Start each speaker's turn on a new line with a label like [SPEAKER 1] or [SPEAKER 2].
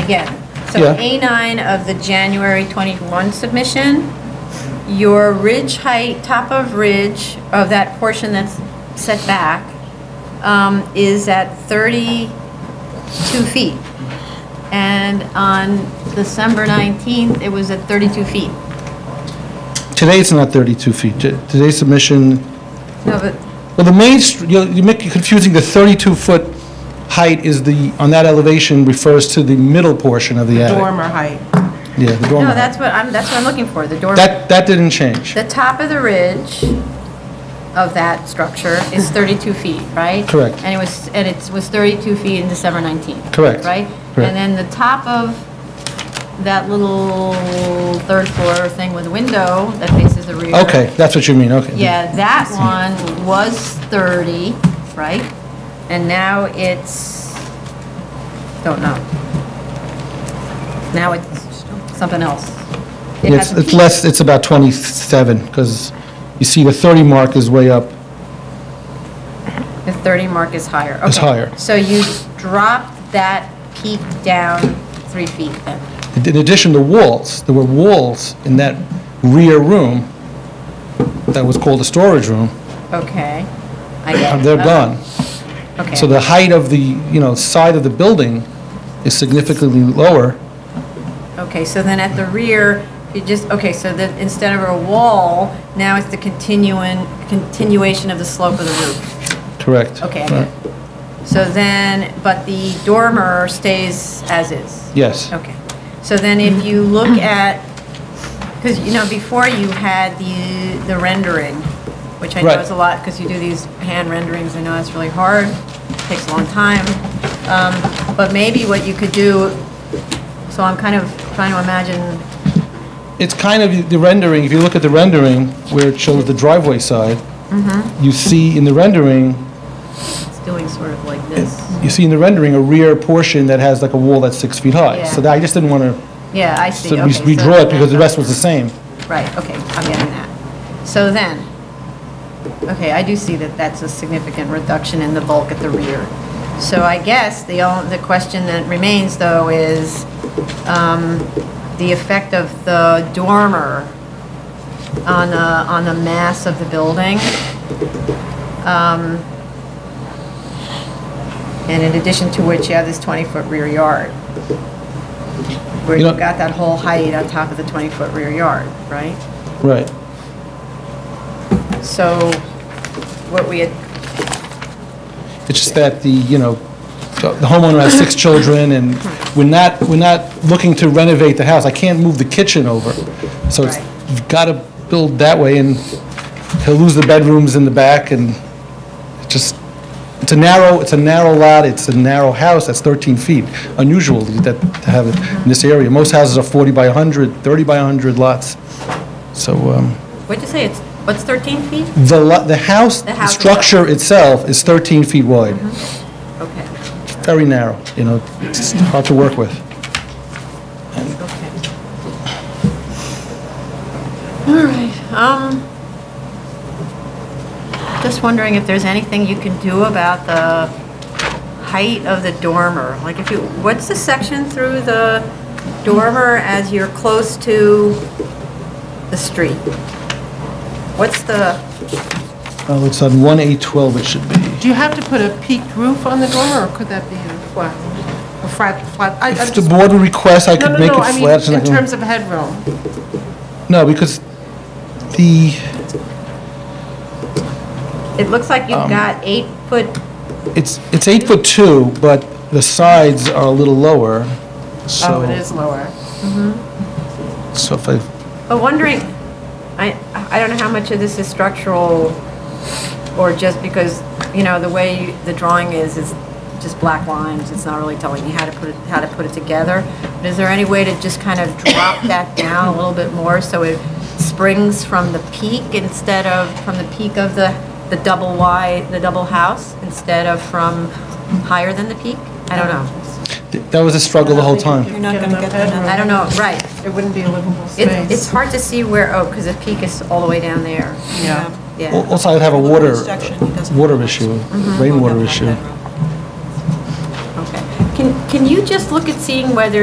[SPEAKER 1] again, so
[SPEAKER 2] Yeah.
[SPEAKER 1] A9 of the January 21 submission, your ridge height, top of ridge of that portion that's set back um, is at 32 feet. And on December 19th, it was at 32 feet.
[SPEAKER 2] Today, it's not 32 feet. T- Today's submission,
[SPEAKER 1] No, but
[SPEAKER 2] well, the main, str- you're you're making confusing, the 32-foot height is the, on that elevation refers to the middle portion of the attic.
[SPEAKER 3] dormer height.
[SPEAKER 2] Yeah, the dormer.
[SPEAKER 1] No, that's what I'm, that's what I'm looking for, the dormer.
[SPEAKER 2] That, that didn't change.
[SPEAKER 1] The top of the ridge of that structure is 32 feet, right?
[SPEAKER 2] Correct.
[SPEAKER 1] And it was, and it was 32 feet in December 19th.
[SPEAKER 2] Correct.
[SPEAKER 1] Right?
[SPEAKER 2] Correct.
[SPEAKER 1] And then the top of that little third floor thing with a window that faces the rear.
[SPEAKER 2] Okay, that's what you mean, okay.
[SPEAKER 1] Yeah, that one was 30, right? And now it's, don't know. Now it's something else. It
[SPEAKER 2] Yeah,
[SPEAKER 1] has
[SPEAKER 2] It's
[SPEAKER 1] a
[SPEAKER 2] it's
[SPEAKER 1] peak.
[SPEAKER 2] less, it's about 27, because you see the 30 mark is way up.
[SPEAKER 1] The 30 mark is higher.
[SPEAKER 2] It's
[SPEAKER 1] Okay.
[SPEAKER 2] higher.
[SPEAKER 1] So you dropped that peak down three feet then?
[SPEAKER 2] In addition, the walls, there were walls in that rear room that was called a storage room,
[SPEAKER 1] Okay. I get it.
[SPEAKER 2] they're gone.
[SPEAKER 1] Okay.
[SPEAKER 2] So the height of the, you know, side of the building is significantly lower.
[SPEAKER 1] Okay, so then at the rear, you just, okay, so then instead of a wall, now it's the continuing, continuation of the slope of the roof.
[SPEAKER 2] Correct. Uh,
[SPEAKER 1] Okay, I get it. So then, but the dormer stays as is?
[SPEAKER 2] Yes.
[SPEAKER 1] Okay. So then if you look at, because, you know, before you had the, the rendering, which I know
[SPEAKER 2] Right.
[SPEAKER 1] is a lot, because you do these hand renderings, I know that's really hard, takes a long time. Um, But maybe what you could do, so I'm kind of trying to imagine,
[SPEAKER 2] It's kind of the rendering, if you look at the rendering where it shows the driveway side,
[SPEAKER 1] Mm-hmm.
[SPEAKER 2] you see in the rendering,
[SPEAKER 1] it's doing sort of like this.
[SPEAKER 2] you see in the rendering a rear portion that has like a wall that's six feet high. So
[SPEAKER 1] Yeah.
[SPEAKER 2] that- I just didn't want to
[SPEAKER 1] Yeah, I see, okay. so
[SPEAKER 2] redraw it because the
[SPEAKER 1] that's-
[SPEAKER 2] rest was the same.
[SPEAKER 1] Right, okay, I'm getting that. So then, okay, I do see that that's a significant reduction in the bulk at the rear. So I guess the, on- the question that remains, though, is um, the effect of the dormer on the, on the mass of the building. Um, And in addition to which, you have this 20-foot rear yard, where
[SPEAKER 2] You
[SPEAKER 1] you've
[SPEAKER 2] know-
[SPEAKER 1] got that whole height on top of the 20-foot rear yard, right?
[SPEAKER 2] Right.
[SPEAKER 1] So what we had
[SPEAKER 2] It's just that the, you know, the the homeowner has six children, and we're not, we're not looking to renovate the house. I can't move the kitchen over. So it's,
[SPEAKER 1] Right.
[SPEAKER 2] you've got to build that way, and he'll lose the bedrooms in the back, and it just, it's a narrow, it's a narrow lot, it's a narrow house, that's 13 feet. Unusual that, to have it in this area. Most houses are 40 by 100, 30 by 100 lots. So, um,
[SPEAKER 1] What'd you say, it's, what's 13 feet?
[SPEAKER 2] the, lo- the house,
[SPEAKER 1] The
[SPEAKER 2] the
[SPEAKER 1] house Mm-hmm. is-
[SPEAKER 2] structure itself is 13 feet wide.
[SPEAKER 1] Okay,
[SPEAKER 2] very narrow, you know, it's hard to work with.
[SPEAKER 1] okay. All right, um, just wondering if there's anything you can do about the height of the dormer? Like if you, what's the section through the dormer as you're close to the street? What's the,
[SPEAKER 2] Oh, it's on 1A12 it should be.
[SPEAKER 3] Do you have to put a peaked roof on the dormer, or could that be a flat, a flat, flat? I- I'm
[SPEAKER 2] If the
[SPEAKER 3] just-
[SPEAKER 2] board would request, I
[SPEAKER 3] No,
[SPEAKER 2] could
[SPEAKER 3] no,
[SPEAKER 2] make
[SPEAKER 3] no,
[SPEAKER 2] it
[SPEAKER 3] I mean,
[SPEAKER 2] flat. and I
[SPEAKER 3] in
[SPEAKER 2] can-
[SPEAKER 3] terms of headroom. Oh,
[SPEAKER 2] No, because the,
[SPEAKER 1] it looks like you've got eight foot,
[SPEAKER 2] it's, it's eight foot two, but the sides are a little lower, so.
[SPEAKER 3] Oh, it is lower.
[SPEAKER 2] So if I,
[SPEAKER 1] but wondering, I, I don't know how much of this is structural or just because, you know, the way the drawing is, is just black lines, it's not really telling you how to put it, how to put it together. But is there any way to just kind of drop that down a little bit more so it springs from the peak instead of, from the peak of the, the double wide, the double house, instead of from higher than the peak? I don't know.
[SPEAKER 2] th- that was a struggle the whole
[SPEAKER 3] You're
[SPEAKER 2] time.
[SPEAKER 3] not going to get that.
[SPEAKER 1] I don't know, right.
[SPEAKER 3] It wouldn't be a livable
[SPEAKER 1] It- It's
[SPEAKER 3] space.
[SPEAKER 1] hard to see where, oh, because the peak is all the way down there.
[SPEAKER 3] Yeah.
[SPEAKER 2] Al-
[SPEAKER 1] Yeah.
[SPEAKER 2] Also, I'd have a water,
[SPEAKER 4] Construction, he doesn't-
[SPEAKER 2] water issue, rainwater issue.
[SPEAKER 1] Okay. Can, can you just look at seeing whether